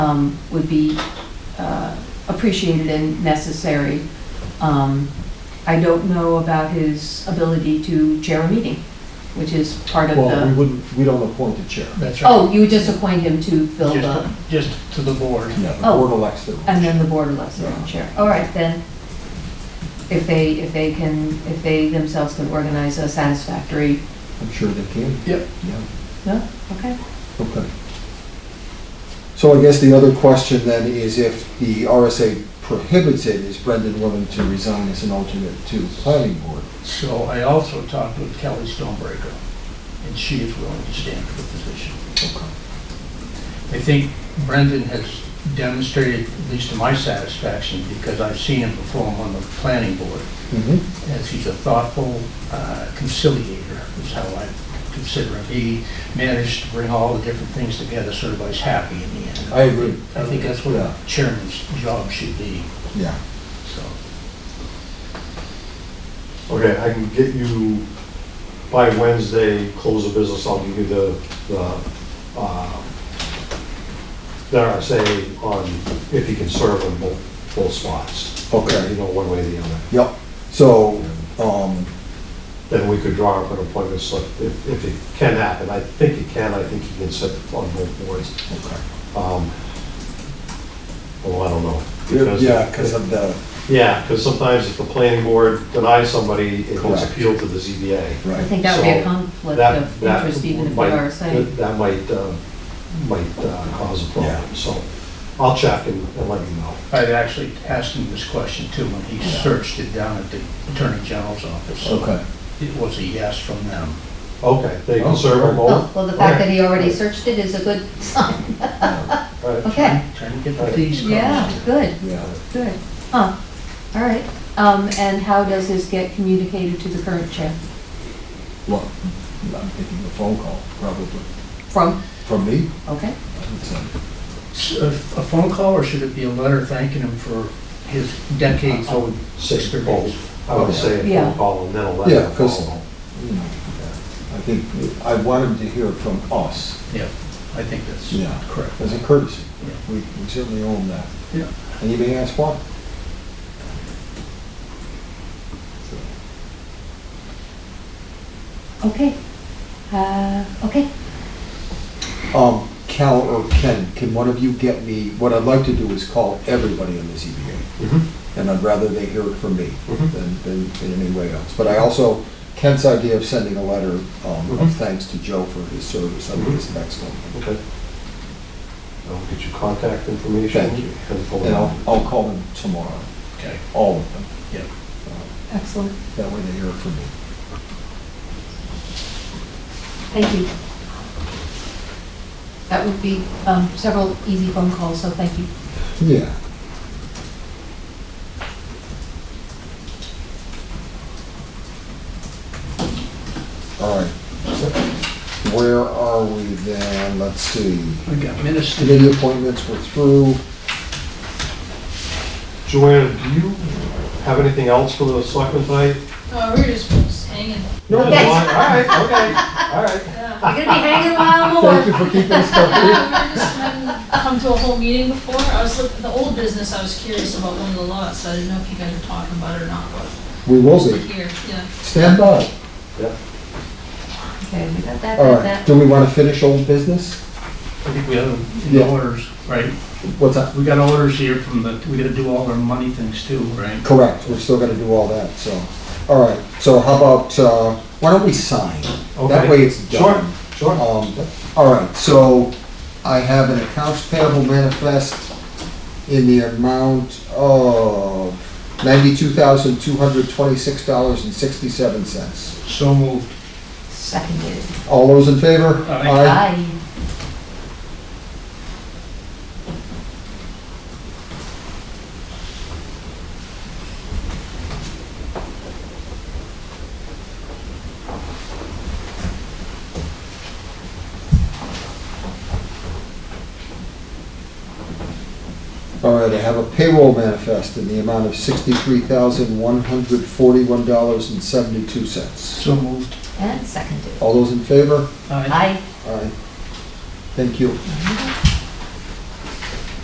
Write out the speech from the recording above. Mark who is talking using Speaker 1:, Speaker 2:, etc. Speaker 1: um, would be uh, appreciated and necessary. Um, I don't know about his ability to chair a meeting, which is part of
Speaker 2: Well, we
Speaker 1: the,
Speaker 2: wouldn't, we don't appoint the chair.
Speaker 3: That's right.
Speaker 1: oh, you would just appoint him to fill the,
Speaker 3: Just, just to the board.
Speaker 2: Yeah, the
Speaker 1: Oh.
Speaker 2: board elects their own
Speaker 1: and
Speaker 2: chair.
Speaker 1: then the board elects their own chair. All right, then, if they, if they can, if they themselves can organize a satisfactory,
Speaker 2: I'm sure they can.
Speaker 3: Yep.
Speaker 2: Yeah,
Speaker 1: no, okay.
Speaker 2: okay. So I guess the other question then is if the RSA prohibits it, is Brendan willing to resign as an alternate to the planning board?
Speaker 3: So I also talked with Kelly Stonebreaker, and she is willing to stand for the position.
Speaker 2: Okay.
Speaker 3: I think Brendan has demonstrated, at least to my satisfaction, because I've seen him perform on the planning board,
Speaker 2: Mm-hmm,
Speaker 3: as he's a thoughtful uh, conciliator, is how I consider him. He managed to bring all the different things together so everybody's happy in the end.
Speaker 2: I agree.
Speaker 3: I think that's what
Speaker 2: Yeah.
Speaker 3: a chairman's job should be,
Speaker 2: yeah.
Speaker 3: so.
Speaker 4: Okay, I can get you, by Wednesday, close of business, I'll give you the, the, uh, the RSA on if you can serve on both, both spots. You
Speaker 2: Okay,
Speaker 4: know, one way or the other.
Speaker 2: yep. So, um,
Speaker 4: Then we could draw up an appointment slip if, if it can happen. I think it can, I think you can sit on both boards.
Speaker 2: okay.
Speaker 4: Um, Well, I don't know.
Speaker 2: Yeah, because of the,
Speaker 4: Yeah, because sometimes if the planning board denies somebody, it gets
Speaker 2: Correct.
Speaker 4: appealed to the ZBA.
Speaker 1: I
Speaker 2: right,
Speaker 1: think that would be a
Speaker 4: So,
Speaker 1: conflict
Speaker 4: That-
Speaker 1: of
Speaker 4: that
Speaker 1: interest even if we
Speaker 4: might-
Speaker 1: are saying.
Speaker 4: That might, uh, might uh, cause a problem,
Speaker 2: Yeah.
Speaker 4: so I'll check and and let you know.
Speaker 3: I've actually asked him this question too, when he searched it down at the Attorney General's office. So
Speaker 2: okay.
Speaker 3: It was a yes from them.
Speaker 4: Okay, they
Speaker 2: Oh,
Speaker 4: can serve them
Speaker 1: Oh,
Speaker 4: both?
Speaker 1: well, the fact that
Speaker 4: Okay.
Speaker 1: he already searched it is a good sign.
Speaker 4: All right.
Speaker 1: Okay.
Speaker 3: Trying to get the fees.
Speaker 1: Yeah, good,
Speaker 2: Yeah.
Speaker 1: good. Huh, all right. Um, and how does this get communicated to the current chair?
Speaker 2: Well, I'm thinking a phone call, probably.
Speaker 1: From,
Speaker 2: From me?
Speaker 1: okay,
Speaker 2: I would say.
Speaker 3: S- A a phone call or should it be a letter thanking him for his decades
Speaker 4: I
Speaker 3: old
Speaker 4: would say
Speaker 3: experience?
Speaker 4: both. I would say a
Speaker 1: Yeah.
Speaker 4: phone call and then a
Speaker 2: Yeah,
Speaker 4: letter
Speaker 2: 'cause-
Speaker 4: follow.
Speaker 2: you know, I think, I want him to hear from us
Speaker 3: Yeah, I think that's
Speaker 2: Yeah.
Speaker 3: correct.
Speaker 2: as a courtesy.
Speaker 3: Yeah.
Speaker 2: We we certainly own that.
Speaker 3: Yeah.
Speaker 2: And you may ask why.
Speaker 1: okay. Uh, okay,
Speaker 2: Um, Cal or Ken, can one of you get me, what I'd like to do is call everybody on the ZBA.
Speaker 4: Mhm.
Speaker 2: And I'd rather they hear it from me
Speaker 4: Mhm.
Speaker 2: than, than in any way else. But I also, Ken's idea of sending a letter um,
Speaker 4: Mhm.
Speaker 2: of thanks to Joe for his service, I think is excellent.
Speaker 4: Okay. I'll get you contact information.
Speaker 2: Thank you.
Speaker 4: and phone
Speaker 2: And I'll,
Speaker 4: number.
Speaker 2: I'll call them tomorrow,
Speaker 3: Okay,
Speaker 2: all of them.
Speaker 3: yeah.
Speaker 1: excellent,
Speaker 2: That way they hear it from me.
Speaker 1: thank you. That would be, um, several easy phone calls, so thank you.
Speaker 2: Yeah. All right. Where are we then? Let's see.
Speaker 3: We got minutes to
Speaker 2: Committee appointments were through.
Speaker 4: Joanna, do you have anything else for the selectmen tonight?
Speaker 5: Oh, we were just hanging.
Speaker 4: No. All
Speaker 1: Okay.
Speaker 4: right, okay, all right.
Speaker 5: Yeah.
Speaker 1: You're gonna be hanging a while
Speaker 2: Thank you for keeping us company.
Speaker 5: Yeah, we were just hadn't come to a whole meeting before. I was looking, the old business, I was curious about one of the lots, so I didn't know if you guys were talking about it or not, but
Speaker 2: We will
Speaker 5: we're
Speaker 2: be.
Speaker 5: here, yeah.
Speaker 2: Stand by.
Speaker 4: Yeah.
Speaker 1: Okay, we got that,
Speaker 2: All
Speaker 1: got
Speaker 2: right.
Speaker 1: that.
Speaker 2: Do we want to finish old business?
Speaker 3: I think we have them in
Speaker 2: Yeah.
Speaker 3: orders, right?
Speaker 2: What's that?
Speaker 3: We got orders here from the, we gotta do all our money things too, right?
Speaker 2: Correct. We're still going to do all that, so. All right. So how about, uh, why don't we sign? That
Speaker 4: Okay.
Speaker 2: way it's done.
Speaker 4: Sure, sure.
Speaker 2: Um, all right, so I have an accounts payable manifest in the amount of ninety-two thousand, two hundred twenty-six dollars and sixty-seven cents.
Speaker 3: So moved.
Speaker 1: Seconded.
Speaker 2: All those in favor?
Speaker 3: Aye.
Speaker 1: Aye.
Speaker 2: All right, I have a payroll manifest in the amount of sixty-three thousand, one hundred forty-one dollars and seventy-two cents.
Speaker 3: So moved.
Speaker 1: And seconded.
Speaker 2: All those in favor?
Speaker 3: Aye.
Speaker 1: Aye.
Speaker 2: Aye. Thank you.
Speaker 1: Mhm.